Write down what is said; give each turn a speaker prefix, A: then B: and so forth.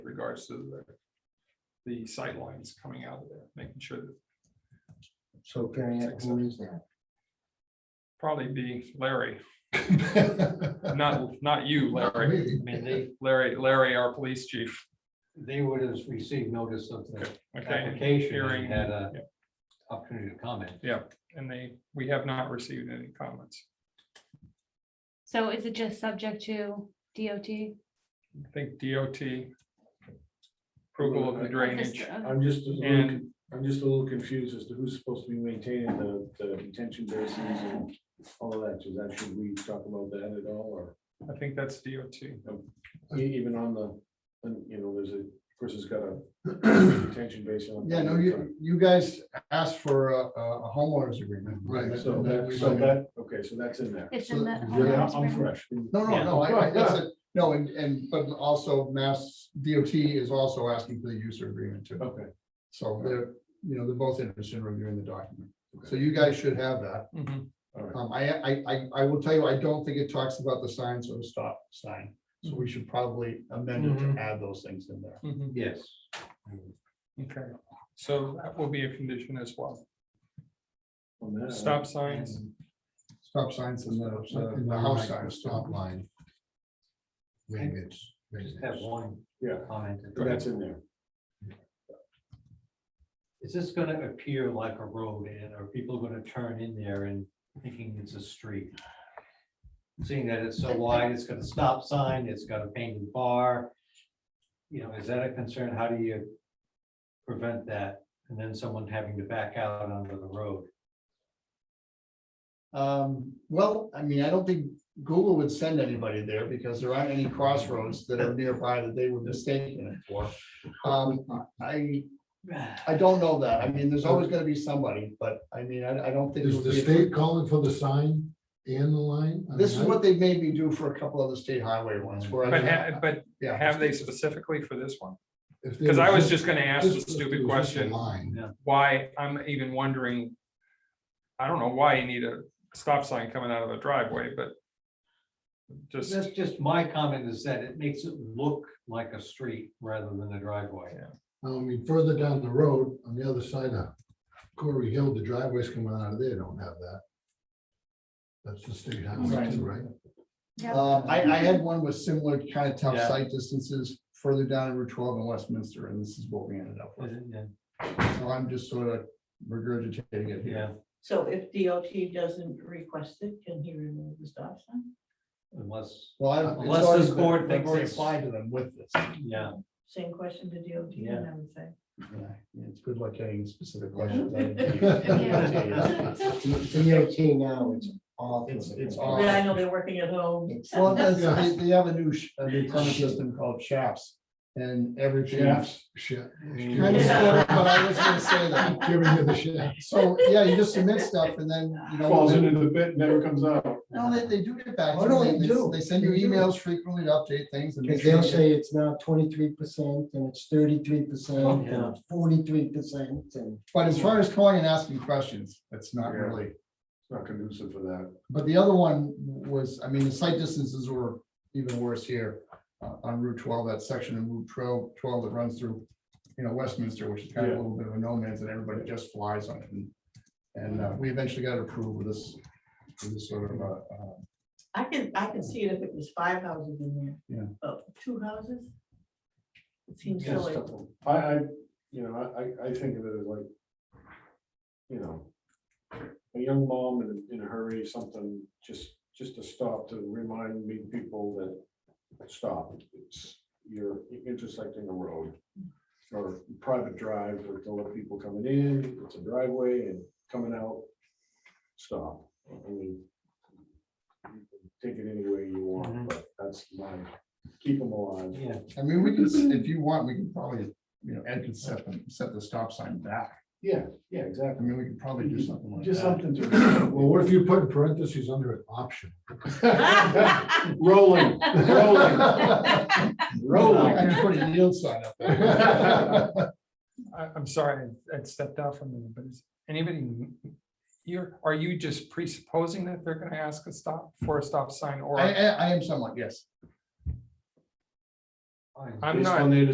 A: regards to the the sight lines coming out of there, making sure that
B: So carrying it, who is that?
A: probably be Larry, not, not you, Larry.
B: Me.
C: I mean, they,
A: Larry, Larry, our police chief,
C: they would have received notice of the
A: okay,
C: application
A: hearing,
C: and had a
A: yeah.
C: opportunity to comment.
A: and they, we have not received any comments.
D: So is it just subject to DOT?
A: I think DOT approval of the drainage
D: uh,
E: I'm just, a little
A: and
E: con- I'm just a little confused as to who's supposed to be maintaining the, the detention basins and all of that. Does that, should we talk about that at all, or
A: I think that's DOT.
E: e- even on the, and, you know, there's a, person's got a detention basin. on-
B: Yeah, no, you, you guys asked for a, a homeowners agreement.
E: Right,
B: That-
E: so
B: that
E: that,
B: we-
E: so that, okay, so that's in there.
D: It's in the.
E: Yeah,
D: homeowner's
E: I'm
D: agreement.
E: fresh.
B: No, no,
C: Yeah.
B: no, I, I, that's it. no, and, and, but also Mass DOT is also asking for the user agreement too.
E: Okay,
B: So they're, you know, they're both interested in reviewing the document. So you guys should have that.
A: Mhm.
E: all right.
B: Um, I, I, I, I will tell you, I don't think it talks about the signs or the stop sign. So we should probably amend it
C: Mm-hmm.
A: Mhm.
B: to add those things in there.
A: Mhm.
C: Yes.
A: Mm-hmm. Okay, so that will be a condition as well.
E: On that,
A: Stop signs.
B: Stop signs and the, and the house signs, stop line.
C: Maybe
B: it's.
C: Just have one
E: Yeah,
C: comment.
E: that's in there.
C: Is this gonna appear like a road and are people gonna turn in there and thinking it's a street? Seeing that it's so wide, it's got a stop sign, it's got a painted bar. You know, is that a concern? How do you prevent that? And then someone having to back out onto the road?
B: Um, well, I mean, I don't think Google would send anybody there because there aren't any crossroads that are nearby that they would mistake it for. Um, I, I don't know that. I mean, there's always gonna be somebody, but I mean, I, I don't think. it
F: Is
B: would
F: the
B: be a-
F: state calling for the sign and the line? I
B: This is
F: mean, I-
B: what they made me do for a couple of the state highway ones where
A: But ha-
B: I,
A: but
B: yeah.
A: have they specifically for this one?
F: if they
A: Because I was
F: just-
A: just gonna ask
F: just
A: the
F: if it
A: stupid
F: was just a
A: question,
F: Line.
A: why, I'm even wondering. I don't know why you need a stop sign coming out of a driveway, but. Just,
C: That's just my comment is that it makes it look like a street rather than a driveway.
F: I mean, further down the road, on the other side of Corey Hill, the driveways coming out of there don't have that. That's the state highway, too, right?
B: Um, I, I had one with similar kind of tough
C: Yeah.
B: site distances further down in Route twelve in Westminster, and this is what we ended up with.
C: Isn't it?
A: Mm-hmm.
B: So I'm just sort of regurgitating it here.
C: Yeah,
G: So if DOT doesn't request it, can he remove the stop sign?
C: unless,
B: Well, I. it's
C: Unless
B: already
C: this
B: been-
C: board
B: they've
C: thinks
B: already
C: it's-
B: Applied to them with this.
C: yeah,
G: Same question to DOT,
C: Yeah.
G: then I would say.
B: Yeah, It's good luck getting specific questions.
G: Yeah.
H: DOT now, it's all.
B: It's- it's all-
G: But I know they're working at home.
H: It's-
B: Well, that's- they, they have a new, sh- a new permit system called shafts, and everything.
F: Shafts. Shit.
B: Kind of sort of, but I was gonna say that.
F: Giving you the shit.
B: So, yeah, you just submit stuff and then, you know.
E: Falls
B: then-
E: into the pit, never comes out.
B: No, they, they do get back.
H: Oh,
B: to
H: no,
B: you.
H: they do.
B: They send you
H: They do.
B: emails frequently to update things and.
H: Because they'll say it's now twenty-three percent and it's thirty-three percent
C: Yeah.
H: and forty-three percent and.
B: But as far as calling and asking questions, it's not
E: Yeah.
B: really,
E: Not conducive for that.
B: but the other one was, I mean, the site distances were even worse here. Uh, on Route twelve, that section of Route 12 12 that runs through, you know, Westminster, which is kind of a
E: Yeah.
B: little bit of a no man's and everybody just flies on it and. And, uh, we eventually got it approved with this, with this sort of, uh, uh,
G: I can, I can see it if it was five houses in there.
B: Yeah.
G: But two houses? It seems
C: Yeah,
G: silly.
E: I, I, you know, I, I, I think of it as like, you know, a young mom in, a- in a hurry, something, just, just to stop to remind me people that stop. It's, you're intersecting a road or private drive with a lot of people coming in, it's a driveway and coming out, stop. I mean, you can take it any way you want,
C: Mhm.
E: but that's my, keep them alive.
C: yeah.
B: I mean, we can, s- if you want, we can probably, you know, Ed could set, the- set the stop sign back.
E: Yeah, yeah, exactly.
B: I mean, we could probably do something like
E: Just
B: that.
E: something
F: Well,
E: to.
F: what if you put in parentheses under it, option?
G: Ah!
E: Rolling, rolling,
B: I
E: rolling.
B: just put a yield sign up there.
A: I, I'm sorry, I- I stepped out from you, but is anybody? You're, are you just presupposing that they're gonna ask a stop for a stop sign or?
B: I, I I am somewhat, yes.
C: Fine.
A: I'm
E: Based
A: not-
E: on their